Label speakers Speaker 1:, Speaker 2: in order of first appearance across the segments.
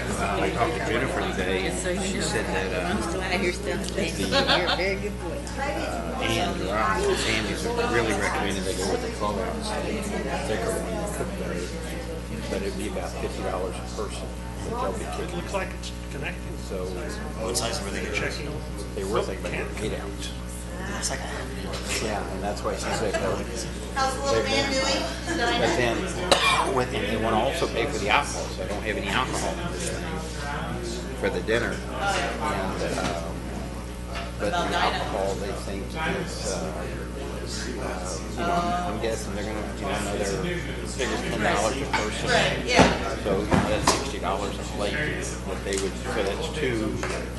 Speaker 1: talked to Jennifer today, and she said that, uh,
Speaker 2: Still out here still. You're a very good boy.
Speaker 1: and Rob and Sandy's uh, really recommended they go with the clubhouse. Thicker one, cooked better, but it'd be about fifty dollars a person, but they'll be
Speaker 3: It
Speaker 1: kicking.
Speaker 3: looks like it's connected.
Speaker 1: So
Speaker 4: What size were they?
Speaker 3: Checking.
Speaker 1: they were thinking about doing eight ounce.
Speaker 4: It's like a hundred.
Speaker 1: Yeah, and that's why she said, no.
Speaker 5: How's the little man doing? Did I
Speaker 1: But then, with, and they want to also pay for the alcohol, so I don't have any alcohol in this thing for the dinner. And, uh, but the alcohol, they think is, uh, uh, you know, I'm guessing they're gonna, you know, another, figure ten dollars a person.
Speaker 5: Right, yeah.
Speaker 1: So you know, that's sixty dollars a plate that they would, so that's two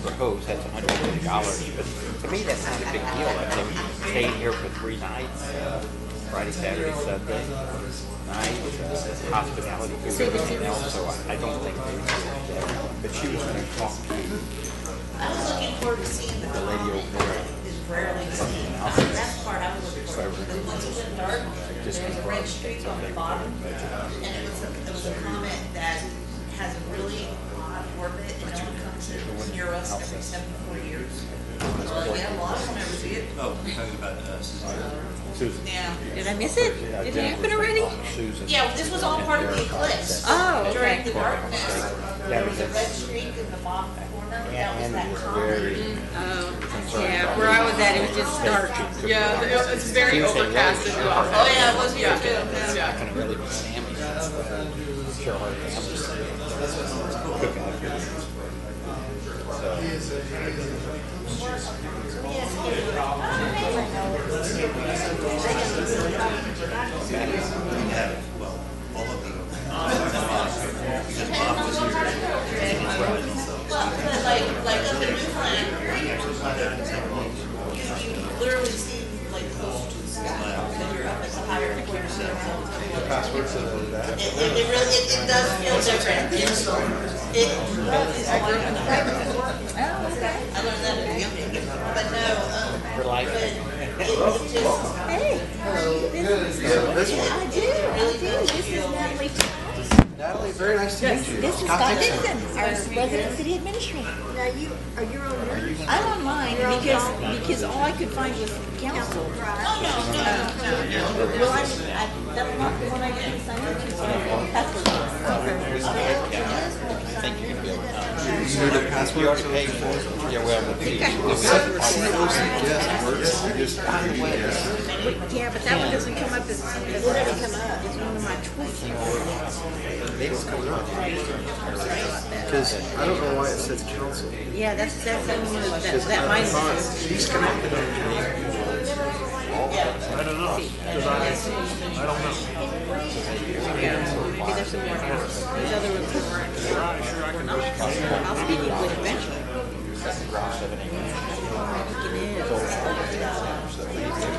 Speaker 1: for hosts, that's hundred and fifty dollars. But to me, that's not a big deal. Like they stayed here for three nights, uh, Friday, Saturday, Sunday night, uh, hospitality, food, everything else. So I- I don't think they would do that. But she was gonna talk to
Speaker 5: I was looking forward to seeing the
Speaker 1: the lady over there.
Speaker 5: is rarely seen. That's the part I was looking for. But once it went dark, there was a red streak on the bottom. And it was, a- it was a comet that has a really odd orbit and only comes near us every seventy-four years. Well, yeah, a lot of them never see it.
Speaker 4: Oh, you're talking about uh, Susan.
Speaker 1: Susan.
Speaker 5: Yeah.
Speaker 2: Did I miss it?
Speaker 1: Yeah,
Speaker 2: Did it
Speaker 1: Jen was
Speaker 2: happen already?
Speaker 1: gonna talk to Susan.
Speaker 5: Yeah, well, this was all part of the eclipse.
Speaker 2: Oh, okay.
Speaker 5: During the darkness, there was a red streak in the bottom corner.
Speaker 1: Yeah,
Speaker 5: That was
Speaker 1: and it
Speaker 5: that
Speaker 1: was
Speaker 5: comet.
Speaker 1: very.
Speaker 2: Oh, yeah, where I was at, it was just dark.
Speaker 6: Yeah, the- it- it's very
Speaker 1: Tuesday,
Speaker 6: overcast
Speaker 1: Wednesday,
Speaker 6: and awful.
Speaker 5: Oh, yeah, it was here too.
Speaker 6: Yeah.
Speaker 1: Not gonna really be Sammy. That's what I'm sure her family's saying. Cook out.
Speaker 5: But like, like up in Newfoundland, you, you literally see like closer to the sky because you're up at the higher point. Password to that. It, it it really, it, it does feel different. It's- It, I grew up in the
Speaker 2: Oh,
Speaker 5: I learned that at Yummy, but no, um, but it, it just.
Speaker 2: Hey. This is- I do, I do. This is Natalie.
Speaker 7: Natalie, very nice to meet you.
Speaker 2: This is Scott Dixon, our resident city administrator. Now, you, are you on yours? I'm on mine because, because all I could find was council. Well, I, I, that's not the one I didn't sign up to, so that's what it is.
Speaker 7: You know the password?
Speaker 1: Yeah, well, the
Speaker 7: CEO suggest works, you just,
Speaker 2: Yeah, but that one doesn't come up as, it doesn't come up. It's one of my tweets.
Speaker 7: because I don't know why it says council.
Speaker 2: Yeah, that's, that's the one that, that- that
Speaker 7: I thought
Speaker 2: mine.
Speaker 7: She's connected on
Speaker 3: I don't know, 'cause I, I don't know.
Speaker 2: Maybe there's some more. There's other ones that weren't. I'll speak with you eventually.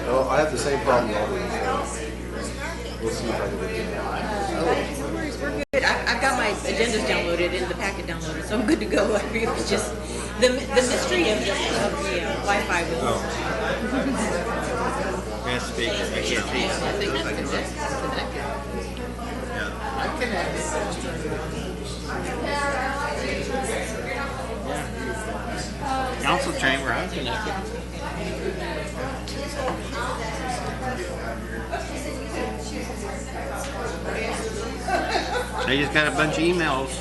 Speaker 7: Oh, I have the same problem all the time. We'll see if I can get it.
Speaker 2: No worries, we're good. I, I've got my agendas downloaded and the packet downloaded, so I'm good to go. It was just, the, the mystery of the, of the uh, Wi-Fi was.
Speaker 1: Mass speaker, I can't see.
Speaker 6: I think that's connected.
Speaker 1: Council chamber, I'm connected. I just got a bunch of emails.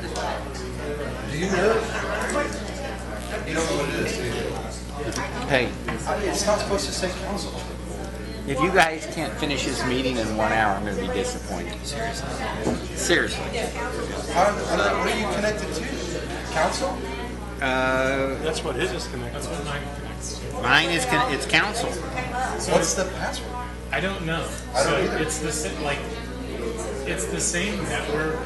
Speaker 7: Do you know? You don't know what it is,
Speaker 1: Hey,
Speaker 7: It's not supposed to say council.
Speaker 1: if you guys can't finish this meeting in one hour, I'm gonna be disappointed. Seriously. Seriously.
Speaker 7: How, what are- what are you connected to? Council?
Speaker 1: Uh,
Speaker 3: That's what his is connected.
Speaker 1: mine is, con- it's council.
Speaker 7: What's the password?
Speaker 8: I don't know. so it's the same, like, it's the same network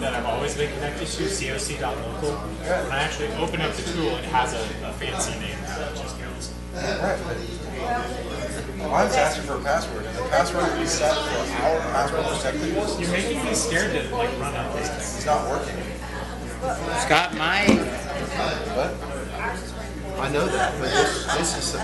Speaker 8: that I've always been connected to, coc.local. When I actually open up the tool, it has a, a fancy name now, it just goes.
Speaker 7: Right, but mine's asking for a password. The password that we set for our password protected
Speaker 8: You're making me scared to like run out these things.
Speaker 7: is not working.
Speaker 1: Scott, my
Speaker 7: I know that, but this, this is